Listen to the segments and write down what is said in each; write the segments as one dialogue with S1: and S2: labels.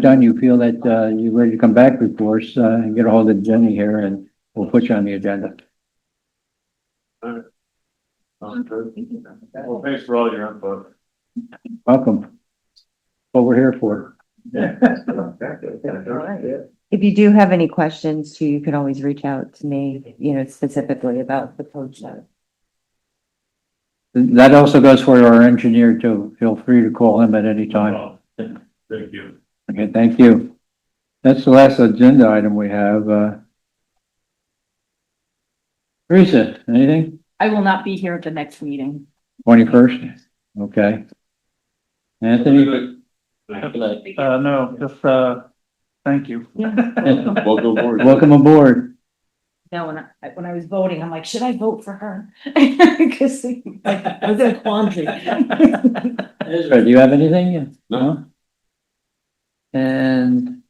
S1: done, you feel that, uh, you're ready to come back before us, uh, and get a hold of Jenny here and we'll put you on the agenda.
S2: Oh,
S3: Well, thanks for all your input.
S1: Welcome. What we're here for.
S4: If you do have any questions too, you can always reach out to me, you know, specifically about the coach. note.
S1: That also goes for our engineer too. Feel free to call him at any time.
S3: Thank you.
S1: Okay, thank you. That's the last agenda item we have, uh. Teresa, anything?
S5: I will not be here at the next meeting.
S1: Twenty-first? Okay. Anthony?
S2: Uh, no, just, uh, thank you.
S3: Welcome aboard.
S1: Welcome aboard.
S5: Now, when I, when I was voting, I'm like, should I vote for her? Cause like, I was in a quandary.
S1: Ezra, do you have anything? No. And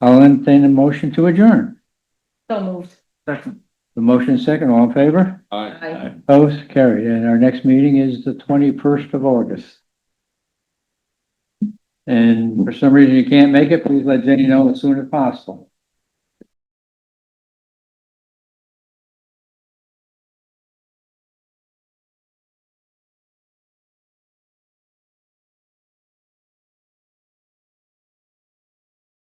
S1: I'll entertain a motion to adjourn.
S5: So moved.
S2: Second,
S1: The motion is second, all in favor?
S5: Aye.
S1: Opposed? Carried. And our next meeting is the twenty-first of August. And for some reason you can't make it, please let Jenny know as soon as possible.